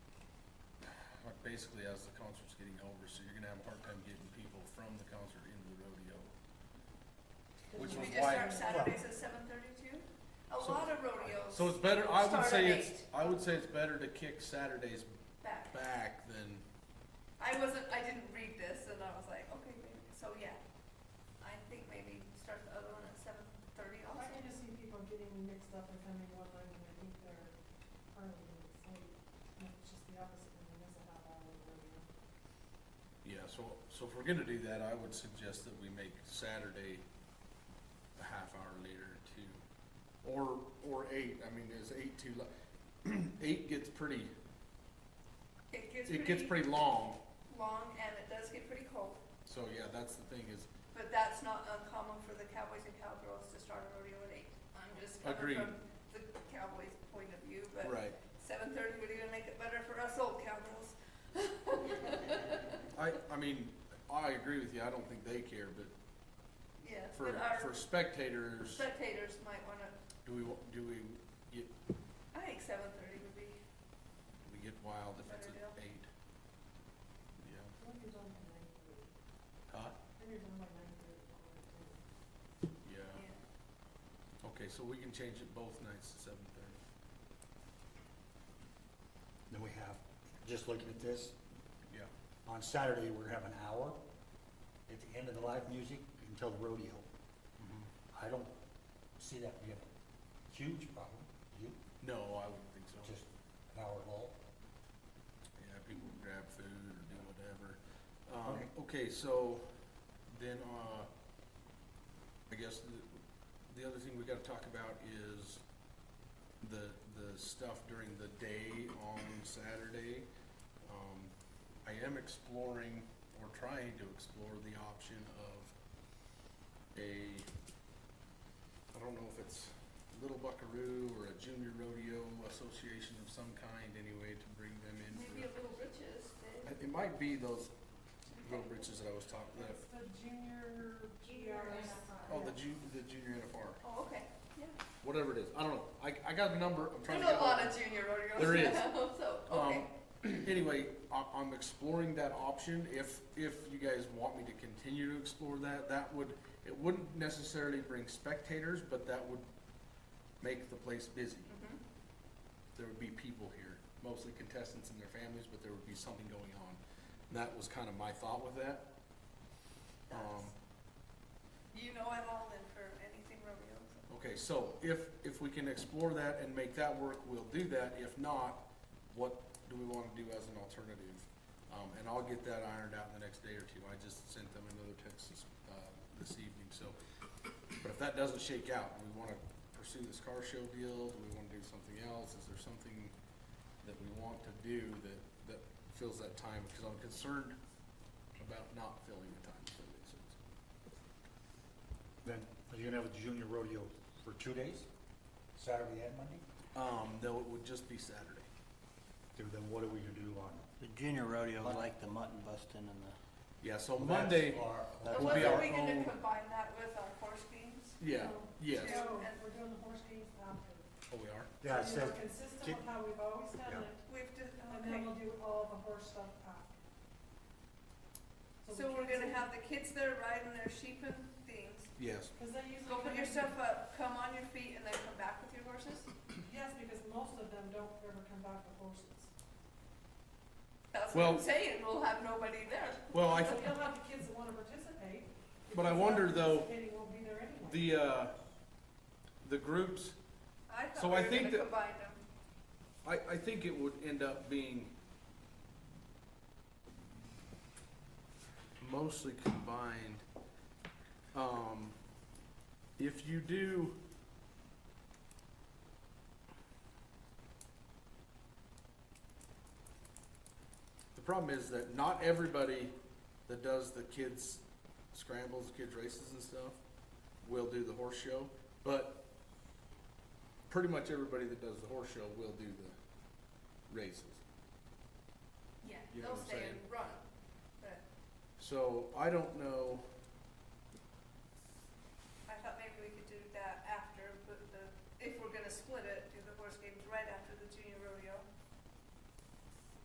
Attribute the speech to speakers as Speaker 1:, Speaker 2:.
Speaker 1: basically as the concert's getting over, so you're gonna have a hard time getting people from the concert into the rodeo. Which
Speaker 2: Should
Speaker 1: was
Speaker 2: we just
Speaker 1: why,
Speaker 2: start Saturdays at seven thirty-two? A
Speaker 1: So-
Speaker 2: lot of rodeos
Speaker 1: so it's better, I would
Speaker 2: Start
Speaker 1: say
Speaker 2: at
Speaker 1: it's,
Speaker 2: eight.
Speaker 1: I would say it's better to kick Saturdays
Speaker 2: back.
Speaker 1: back than,
Speaker 2: I wasn't, I didn't read this and I was like, okay, maybe, so yeah. I think maybe start the other one at seven thirty
Speaker 3: I
Speaker 2: also.
Speaker 3: can just see people getting mixed up and coming one way and I think they're early and it's late. And it's just the opposite and there's a half hour of rodeo.
Speaker 1: yeah, so, so if we're gonna do that, I would suggest that we make Saturday a half hour later too. Or, or eight, I mean, is eight too li- eight gets pretty,
Speaker 2: It gets
Speaker 1: it gets pretty
Speaker 2: pretty
Speaker 1: long,
Speaker 2: long and it does get pretty cold,
Speaker 1: so yeah, that's the thing is,
Speaker 2: but that's not uncommon for the cowboys and cowgirls to start a rodeo at eight. I'm just coming
Speaker 1: Agreed.
Speaker 2: from the cowboys' point of view, but
Speaker 1: right.
Speaker 2: seven thirty would even make it better for us old cowgirls.
Speaker 1: I, I mean, I agree with you, I don't think they care, but
Speaker 2: Yeah,
Speaker 1: for,
Speaker 2: but our
Speaker 1: for spectators,
Speaker 2: spectators might wanna,
Speaker 1: do we, wa- do we, get,
Speaker 2: I think seven thirty would be,
Speaker 1: we get wild if it's
Speaker 2: Better
Speaker 1: at
Speaker 2: deal. eight.
Speaker 1: eight? Yeah.
Speaker 3: What if you're done by nine thirty?
Speaker 1: Huh?
Speaker 3: Then you're done by nine thirty.
Speaker 1: Yeah,
Speaker 2: yeah.
Speaker 1: okay, so we can change it both nights to seven thirty,
Speaker 4: Then we have, just looking at this,
Speaker 1: yeah.
Speaker 4: on Saturday, we're gonna have an hour at the end of the live music until the rodeo. I don't see that being a huge problem. You,
Speaker 1: No, I wouldn't think so,
Speaker 4: just an hour long.
Speaker 1: yeah, people can grab food or do whatever. Um,
Speaker 4: Okay.
Speaker 1: okay, so then, uh, I guess the, the other thing we gotta talk about is the, the stuff during the day on Saturday. Um, I am exploring, or trying to explore the option of a, I don't know if it's Little Buckaroo or a junior rodeo association of some kind anyway to bring them in for.
Speaker 2: Maybe a little riches, then.
Speaker 1: It- It might be those little
Speaker 2: Okay.
Speaker 1: britches that I was talking about.
Speaker 3: It's the junior.
Speaker 2: Junior
Speaker 3: GRs.
Speaker 2: NFI.
Speaker 1: Oh, the ju- the junior NFR,
Speaker 2: Oh, okay, yeah.
Speaker 1: whatever it is. I don't know. I, I got a number. I'm trying
Speaker 2: There's
Speaker 1: to
Speaker 2: a
Speaker 1: get.
Speaker 2: lot of junior rodeos
Speaker 1: There is.
Speaker 2: now, so, okay.
Speaker 1: Um, anyway, I, I'm exploring that option. If if you guys want me to continue to explore that, that would it wouldn't necessarily bring spectators, but that would make the place busy.
Speaker 2: Mhm.
Speaker 1: there would be people here, mostly contestants and their families, but there would be something going on. And that was kind of my thought with that. Um,
Speaker 2: You know I'm all in for anything rodeo, so.
Speaker 1: okay, so if, if we can explore that and make that work, we'll do that. If not, what do we want to do as an alternative? Um, and I'll get that ironed out in the next day or two. I just sent them another text this, uh, this evening, so. But if that doesn't shake out, do we want to pursue this car show deal? Do we want to do something else? Is there something that we want to do that, that fills that time? Because I'm concerned about not filling the time, if that makes sense.
Speaker 4: Then, are you gonna have a junior rodeo for two days? Saturday and Monday?
Speaker 1: Um, no, it would just be Saturday.
Speaker 4: Then then what are we gonna do on?
Speaker 5: The junior rodeo, is like the mutton busting and the,
Speaker 1: Yeah, so Monday,
Speaker 4: That's our-
Speaker 1: That
Speaker 2: And
Speaker 1: will be
Speaker 2: wasn't
Speaker 1: our
Speaker 2: we gonna
Speaker 1: own-
Speaker 2: combine that with our horse games?
Speaker 1: yeah, yes.
Speaker 2: Yeah.
Speaker 3: So we're doing the horse games after.
Speaker 1: Oh, we are?
Speaker 4: Yeah, it
Speaker 3: So
Speaker 4: says,
Speaker 3: We're consistent
Speaker 4: Did-
Speaker 3: with how we've always done
Speaker 4: Yeah.
Speaker 3: it,
Speaker 2: We've just,
Speaker 3: and then
Speaker 2: okay,
Speaker 3: we'll do all the horse stuff after.
Speaker 2: so
Speaker 3: we
Speaker 2: we're gonna
Speaker 3: can't-
Speaker 2: have the kids there riding their sheep and things.
Speaker 1: Yes.
Speaker 3: Cause they usually.
Speaker 2: Go put
Speaker 3: come
Speaker 2: your
Speaker 3: in-
Speaker 2: stuff up, come on your feet, and then come back with your horses?
Speaker 3: Yes, because most of them don't ever come back with horses.
Speaker 2: That's what I'm
Speaker 1: Well-
Speaker 2: saying, we'll have nobody there.
Speaker 1: Well, I,
Speaker 3: So you'll have the kids that wanna participate.
Speaker 1: But I
Speaker 3: because
Speaker 1: wonder,
Speaker 3: not
Speaker 1: though,
Speaker 3: Participating won't be there anyway.
Speaker 1: the, uh, the groups,
Speaker 2: I thought
Speaker 1: So
Speaker 2: we
Speaker 1: I
Speaker 2: were
Speaker 1: think
Speaker 2: gonna
Speaker 1: that-
Speaker 2: combine them.
Speaker 1: I, I think it would end up being mostly combined. Um, if you do. The problem is that not everybody that does the kids scrambles, kids races and stuff will do the horse show, but pretty much everybody that does the horse show will do the races.
Speaker 2: Yeah,
Speaker 1: You know
Speaker 2: they'll
Speaker 1: what I'm
Speaker 2: stay
Speaker 1: saying?
Speaker 2: and run, but
Speaker 1: So I don't know,
Speaker 2: I thought maybe we could do that after, but the, if we're gonna split it, do the horse games right after the junior rodeo.